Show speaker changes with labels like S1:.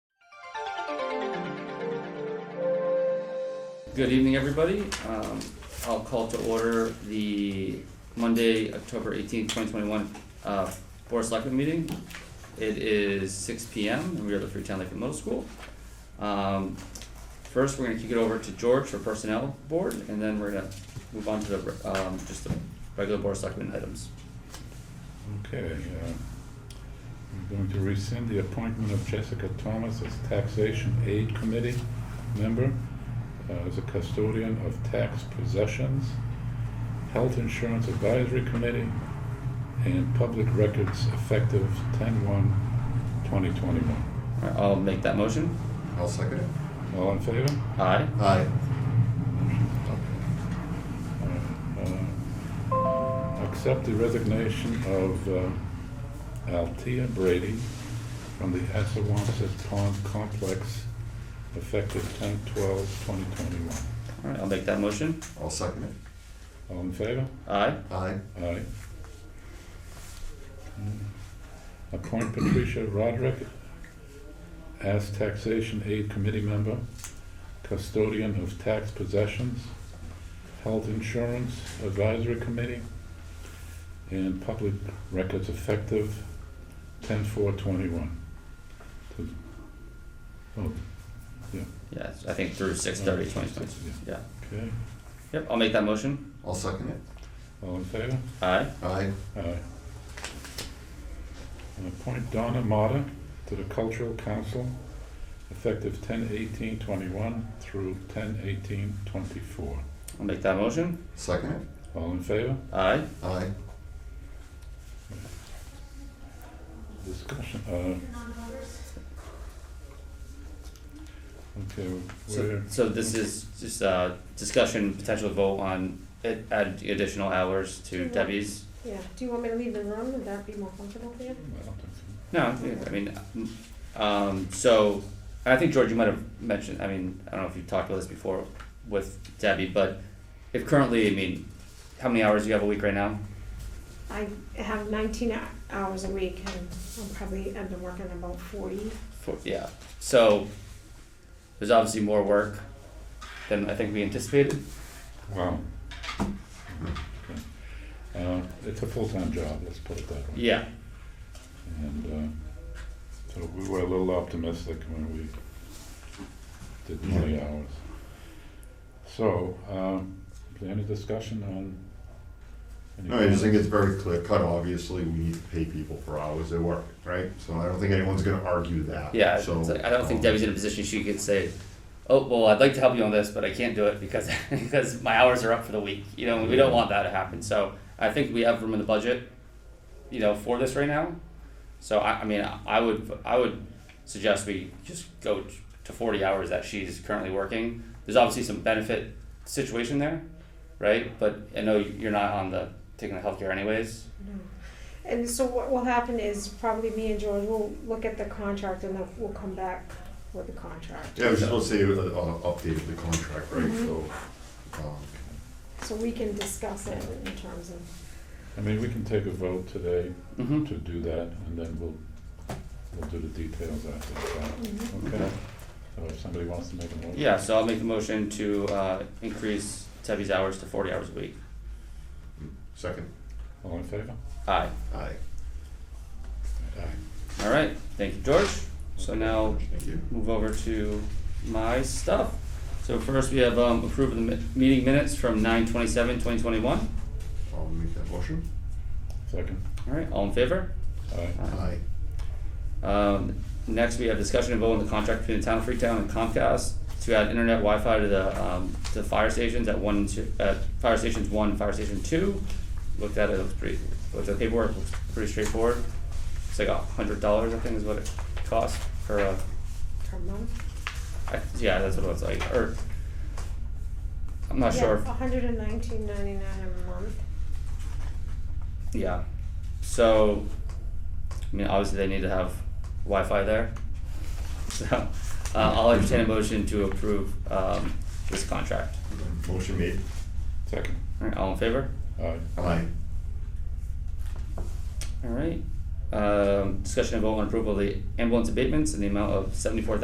S1: Good evening, everybody. Um, I'll call to order the Monday, October eighteenth, twenty twenty-one, uh, Board of Selectmen meeting. It is six P M and we are at the Freetown Lake Middle School. Um, first, we're gonna kick it over to George for Personnel Board, and then we're gonna move on to the, um, just the regular Board of Selectmen items.
S2: Okay, uh, I'm going to rescind the appointment of Jessica Thomas as Taxation Aid Committee member, uh, as a custodian of tax possessions, Health Insurance Advisory Committee, and Public Records effective 10/1/2021.
S1: Alright, I'll make that motion.
S3: I'll second it.
S2: All in favor?
S1: Aye.
S3: Aye.
S2: Uh, Accept the resignation of uh, Althea Brady from the Assawamsett Pond Complex effective 10/12/2021.
S1: Alright, I'll make that motion.
S3: I'll second it.
S2: All in favor?
S1: Aye.
S3: Aye.
S2: Aye. Hmm. Appoint Patricia Roderick as Taxation Aid Committee Member, Custodian of Tax Possessions, Health Insurance Advisory Committee, and Public Records Effective ten four twenty-one. Oh,
S1: Yes, I think through six thirty, twenty twenty. Yeah.
S2: okay,
S1: Yep, I'll make that motion.
S3: I'll second it.
S2: all in favor?
S1: Aye.
S3: Aye.
S2: Aye. And appoint Donna Mata to the Cultural Council, effective ten eighteen twenty-one through ten eighteen twenty-four.
S1: I'll make that motion.
S3: Second it.
S2: All in favor?
S1: Aye.
S3: Aye.
S2: Discussion, uh. Okay,
S1: So,
S2: we're,
S1: so this is just uh discussion, potential vote on it, add additional hours to Debbie's.
S4: Yeah, do you want me to leave the room, would that be more comfortable for you?
S2: I don't think
S1: No,
S2: so.
S1: I mean, um, so, I think George, you might have mentioned, I mean, I don't know if you've talked about this before with Debbie, but if currently, I mean, how many hours do you have a week right now?
S4: I have nineteen hou- hours a week and I'm probably, I've been working about forty.
S1: For, yeah, so, there's obviously more work than I think we anticipated.
S2: Wow. Okay. Uh, it's a full-time job, let's put it that way.
S1: Yeah,
S2: And uh, so we were a little optimistic when we did twenty hours. So, um, is there any discussion on? any
S3: No, I just think it's very clear cut, obviously, we need to pay people for hours they work, right? So I don't think anyone's gonna argue that,
S1: yeah, it's
S3: so.
S1: like, I don't think
S3: um,
S1: Debbie's in a position she could say, oh, well, I'd like to help you on this, but I can't do it because, because my hours are up for the week, you know, and we don't want that to happen, so I think we have room in the budget, you know, for this right now, so I, I mean, I would, I would suggest we just go to forty hours that she's currently working, there's obviously some benefit situation there, right, but I know you're not on the, taking the healthcare anyways,
S4: No. And so what will happen is probably me and George will look at the contract and then we'll come back with the contract.
S3: Yeah, I was just gonna say, uh, uh, updated the contract, right, so, um,
S4: So we can discuss it in terms of,
S2: I mean, we can take a vote today
S1: mm-hmm,
S2: to do that, and then we'll, we'll do the details after the fact.
S4: Mhm.
S2: Okay? So if somebody wants to make a motion.
S1: yeah, so I'll make the motion to, uh, increase Debbie's hours to forty hours a week.
S3: second,
S2: All in favor?
S1: Aye.
S3: aye. Aye.
S1: All right. Thank you, George. So now
S3: Thank you.
S1: move over to my stuff. So first we have um, approve of the mi- meeting minutes from 9:27, 2021.
S3: I'll make that motion.
S2: Second?
S1: All right. All in favor?
S2: Aye.
S3: Aye.
S1: Um, next we have discussion and vote on the contract between the town of Freetown and Comcast to add internet Wi-Fi to the um, to the fire stations at one, and two, at fire stations one, and fire station two. Looked at it. Looks pretty. Looked at the paperwork. Looks pretty straightforward. It's like a hundred dollars, I think, is what it costs for a
S4: per month.
S1: I, yeah, that's what it was like. Or I'm not Uh, sure.
S4: Yeah, hundred and nineteen ninety-nine a month.
S1: Yeah. So, I mean, obviously they need to have Wi-Fi there. So, uh, I'll entertain a motion to approve um, this contract.
S3: Motion made.
S2: Second?
S1: All right, all in favor?
S2: Aye.
S3: Aye.
S1: All right. Um, discussion and vote on approval of the ambulance abatements in the amount of seventy-four